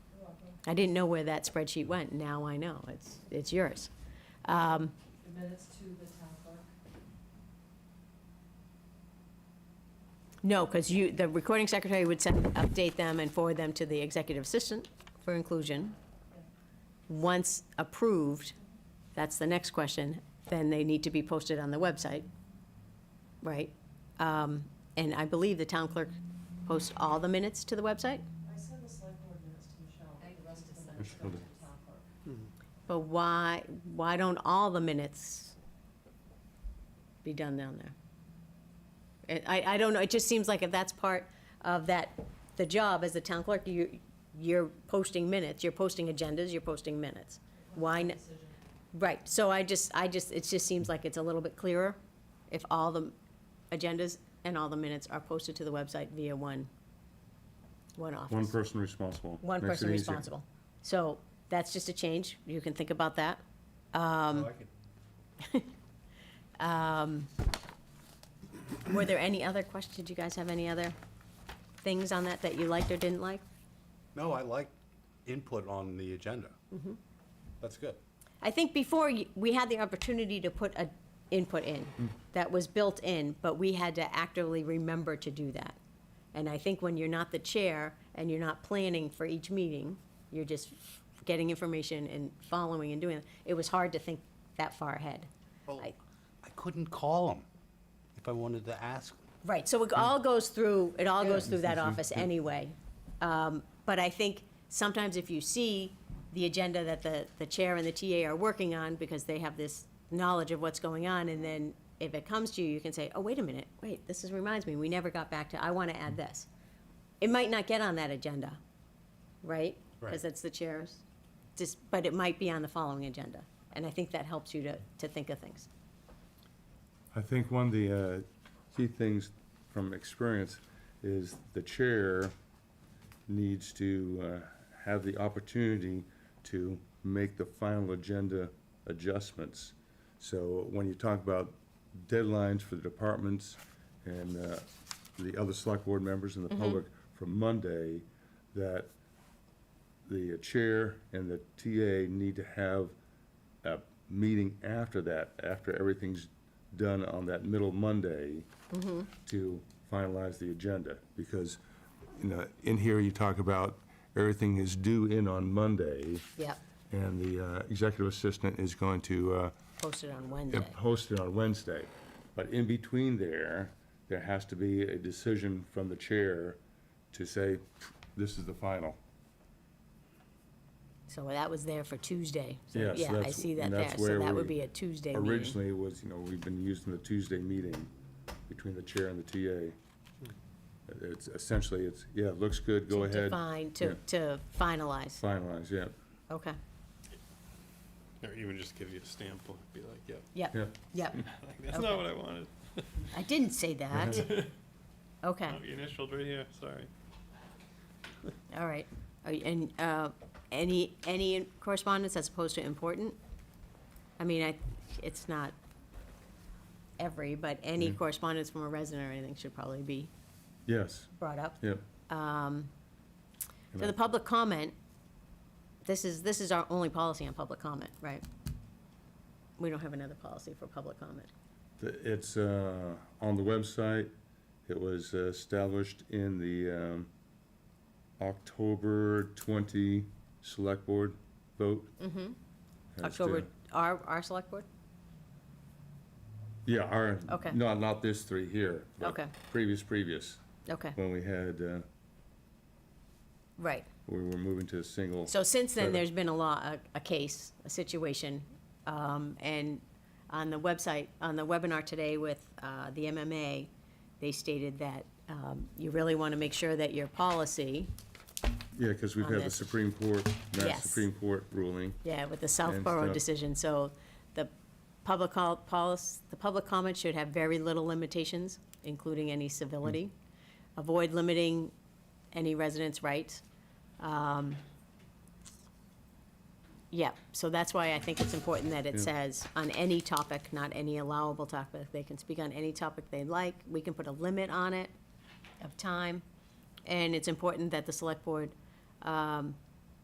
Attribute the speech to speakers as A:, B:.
A: I didn't know where that spreadsheet went. Now I know. It's, it's yours. Um,
B: The minutes to the town clerk.
A: No, because you, the recording secretary would send, update them and forward them to the executive assistant for inclusion. Once approved, that's the next question, then they need to be posted on the website, right? Um, And I believe the town clerk posts all the minutes to the website,
B: I send the select board minutes to Michelle, but the rest of the minutes go to the town clerk.
A: but why, why don't all the minutes be done down there? And I, I don't know, it just seems like if that's part of that, the job as the town clerk, you, you're posting minutes, you're posting agendas, you're posting minutes. Why, n-
B: Decision.
A: right, so I just, I just, it just seems like it's a little bit clearer if all the agendas and all the minutes are posted to the website via one, one office.
C: One person responsible.
A: One
C: Makes it
A: person
C: easier.
A: responsible. So that's just a change. You can think about that.
D: I like it.
A: Were there any other questions? Did you guys have any other things on that that you liked or didn't like?
D: No, I like input on the agenda. That's good.
A: I think before, y- we had the opportunity to put a input in that was built in, but we had to actively remember to do that. And I think when you're not the chair and you're not planning for each meeting, you're just getting information and following and doing, it, it was hard to think that far ahead.
D: Well,
A: I-
D: I couldn't call them if I wanted to ask.
A: Right, so it all goes through, it all goes through that office anyway. Um, But I think sometimes if you see the agenda that the, the chair and the TA are working on, because they have this knowledge of what's going on, and then if it comes to you, you can say, oh, wait a minute, wait, this is, reminds me, we never got back to, I want to add this. It might not get on that agenda, right? Because
D: Right.
A: that's the chair's, just, but it might be on the following agenda. And I think that helps you to, to think of things.
C: I think one of the uh, key things from experience is the chair needs to uh, have the opportunity to make the final agenda adjustments. So when you talk about deadlines for the departments and uh, the other select board members and the
A: Mm-hmm.
C: public from Monday, that the chair and the TA need to have a meeting after that, after everything's done on that middle Monday to finalize the agenda, because, you know, in here you talk about everything is due in on Monday,
A: Yep,
C: and the uh, executive assistant is going to uh,
A: post it on Wednesday.
C: Posted on Wednesday. But in between there, there has to be a decision from the chair to say, this is the final.
A: So that was there for Tuesday. So,
C: Yes,
A: Yeah, I
C: that's-
A: see that
C: and
A: there.
C: that's
A: So
C: where
A: that would
C: we
A: be a Tuesday meeting.
C: Originally was, you know, we've been using the Tuesday meeting between the chair and the TA. It's essentially, it's, yeah, it looks good, go
A: To
C: ahead,
A: define, to,
C: Yeah.
A: to finalize.
C: finalize, yeah,
A: Okay.
E: Or even just give you a stamp on it, be like, yep,
A: Yep,
C: yeah.
A: yep.
E: like, that's
A: Okay.
E: not what I wanted.
A: I didn't say that. Okay,
E: Oh, your initials right here, sorry.
A: all right. Are you- And, uh, any, any correspondence as opposed to important? I mean, I, it's not every, but
C: Mm.
A: any correspondence from a resident or anything should probably be
C: Yes,
A: brought up.
C: yeah.
A: So the public comment, this is, this is our only policy on public comment, right? We don't have another policy for public comment.
C: The- It's uh, on the website. It was uh, established in the um, October 20 Select Board vote. As, uh,
A: Mm-hmm. October, our, our select board?
C: Yeah, our,
A: Okay.
C: no, not this three here. but
A: Okay.
C: Previous, previous,
A: Okay,
C: when we had, uh,
A: right.
C: we were moving to a single.
A: So since then,
C: Sorry.
A: there's been a law, a, a case, a situation, um, and on the website, on the webinar today with, uh, the MMA, they stated that, um, you really want to make sure that your policy,
C: Yeah, because we've
A: on
C: had the
A: this.
C: Supreme Court,
A: Yes.
C: Mass Supreme Court ruling.
A: Yeah, with the
C: And
A: Southborough
C: stuff.
A: decision, so the public call, policy, the public comment should have very little limitations, including any civility. Avoid limiting any residents' rights. Um, Yeah, so that's why I think it's important that it
C: Yeah.
A: says, on any topic, not any allowable topic, they can speak on any topic they like, we can put a limit on it of time. And it's important that the select board um,